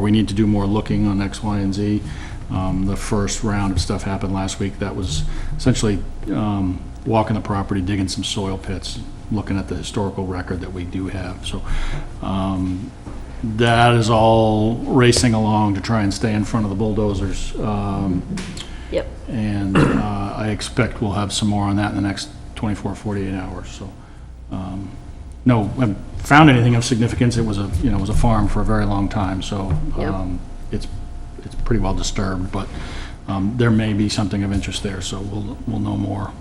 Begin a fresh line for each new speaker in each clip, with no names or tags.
we need to do more looking on X, Y, and Z. Um, The first round of stuff happened last week. That was essentially um, walking the property, digging some soil pits, looking at the historical record that we do have. So um, that is all racing along to try and stay in front of the bulldozers. Um,
Yep.
And uh, I expect we'll have some more on that in the next 24, 48 hours, so. um, No, I haven't found anything of significance. It was a, you know, it was a farm for a very long time, so
Yep.
um, it's, it's pretty well disturbed, but um, there may be something of interest there, so we'll, we'll know more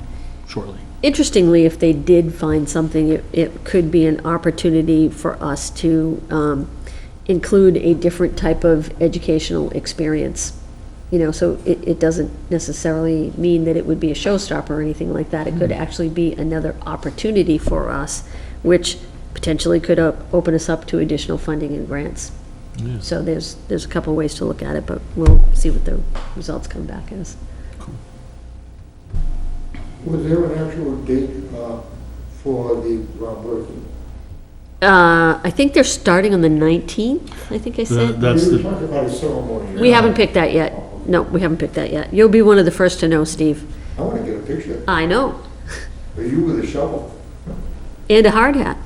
shortly.
Interestingly, if they did find something, it, it could be an opportunity for us to um, include a different type of educational experience. You know, so it, it doesn't necessarily mean that it would be a showstopper or anything like that. It could actually be another opportunity for us, which potentially could op- open us up to additional funding and grants. So there's, there's a couple ways to look at it, but we'll see what the results come back as.
Was there an actual date uh, for the groundbreaking?
Uh, I think they're starting on the 19th, I think I
The-
said.
That's
We were
the,
talking about a ceremony.
We haven't picked that yet. No, we haven't picked that yet. You'll be one of the first to know, Steve.
I want to get a picture.
I know.
Are you with a shovel?
And a hard hat.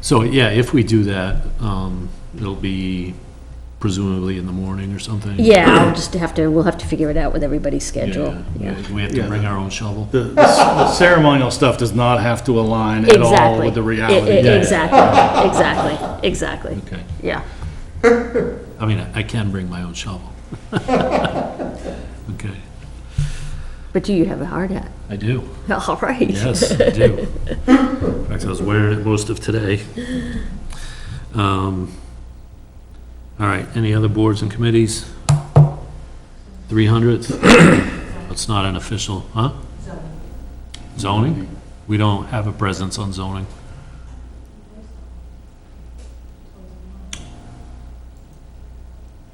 So, yeah, if we do that, um, it'll be presumably in the morning or something?
Yeah, I'll just have to, we'll have to figure it out with everybody's schedule.
Yeah,
Yeah.
we- we have to
Yeah.
bring our own shovel?
the- the ceremonial stuff does not have to align at all
Exactly.
with the
E- e-
reality.
Yeah.
Exactly, exactly, exactly.
Okay,
Yeah.
I mean, I I can bring my own shovel. Okay,
But do you have a hard hat?
I do,
All right.
yes, I do. In fact, I was wearing it most of today. Um, All right, any other boards and committees? 300th? It's not an official, huh? Zoning? We don't have a presence on zoning.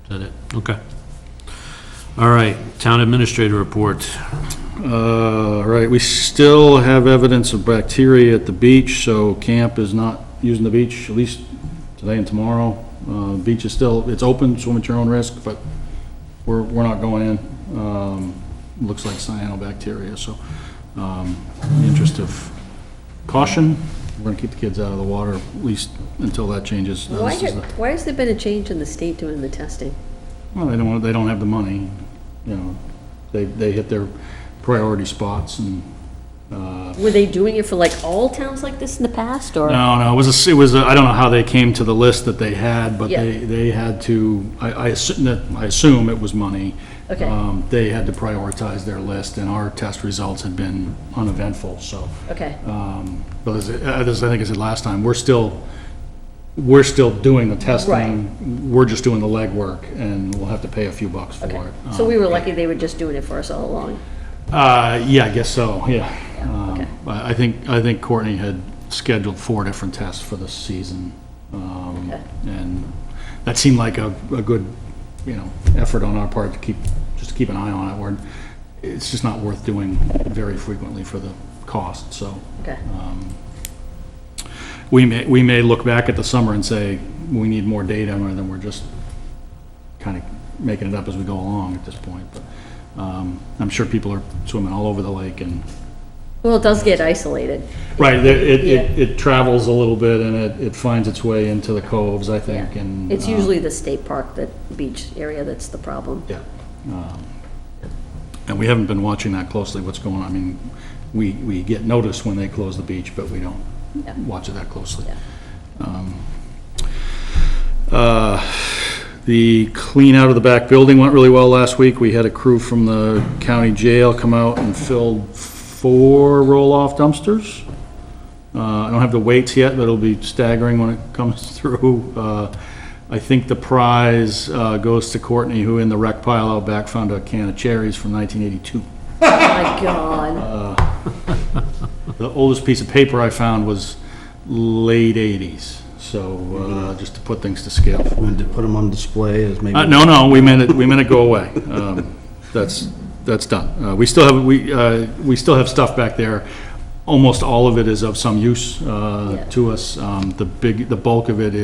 Is that it? Okay. All right, town administrator report.
Uh, right, we still have evidence of bacteria at the beach, so camp is not using the beach, at least today and tomorrow. Uh, beach is still, it's open, swim at your own risk, but we're, we're not going in. Um, looks like cyanobacteria, so, um, in the interest of caution, we're gonna keep the kids out of the water, at least until that changes. Now,
Why,
this is
ha-
the-
why has there been a change in the state doing the testing?
well, they don't, want- they don't have the money, you know, they, they hit their priority spots and, uh,
Were they doing it for like all towns like this in the past, or?
No, no, it was, a- it was, a- I don't know how they came to the list that they had, but
Yeah.
they, they had to, I, I assume, that- I assume it was money.
Okay.
Um, They had to prioritize their list, and our test results had been uneventful, so.
Okay,
um, But as, I- as I think I said last time, we're still, we're still doing the testing. We're just doing the legwork, and we'll have to pay a few bucks for
okay.
it.
So
Um,
we were lucky they were just doing it for us all along.
uh, yeah, I guess so, yeah.
okay.
Um, I I think, I think Courtney had scheduled four different tests for this season. um,
Okay.
And that seemed like a, a good, you know, effort on our part to keep, just to keep an eye on it. We're, it's just not worth doing very frequently for the cost, so.
Okay.
We may, we may look back at the summer and say, we need more data, and then we're just kind of making it up as we go along at this point. But um, I'm sure people are swimming all over the lake and,
Well, it does get isolated.
right, it, it- it, it travels a little bit and it, it finds its way into the coves, I think,
Yeah.
and.
It's
uh,
usually the state park, the beach area that's the problem.
Yeah. Um, And we haven't been watching that closely, what's going on. I mean, we, we get notice when they close the beach, but we don't
Yeah.
watch it that closely.
Yeah.
Um, uh, The clean out of the back building went really well last week. We had a crew from the county jail come out and filled four roll-off dumpsters. Uh, I don't have the weights yet, but it'll be staggering when it comes through. Uh, I think the prize uh, goes to Courtney, who in the wreck pile out back found a can of cherries from 1982.
Oh, my God.
The oldest piece of paper I found was late 80s, so uh, just to put things to scale.
Wanted to put them on display as maybe.
Uh, no, no, we meant it, we meant it go away. Um, That's, that's done. Uh, we still have, we, uh, we still have stuff back there. Almost all of it is of some use,
Yeah.
uh, to us. Um, the big, the bulk of it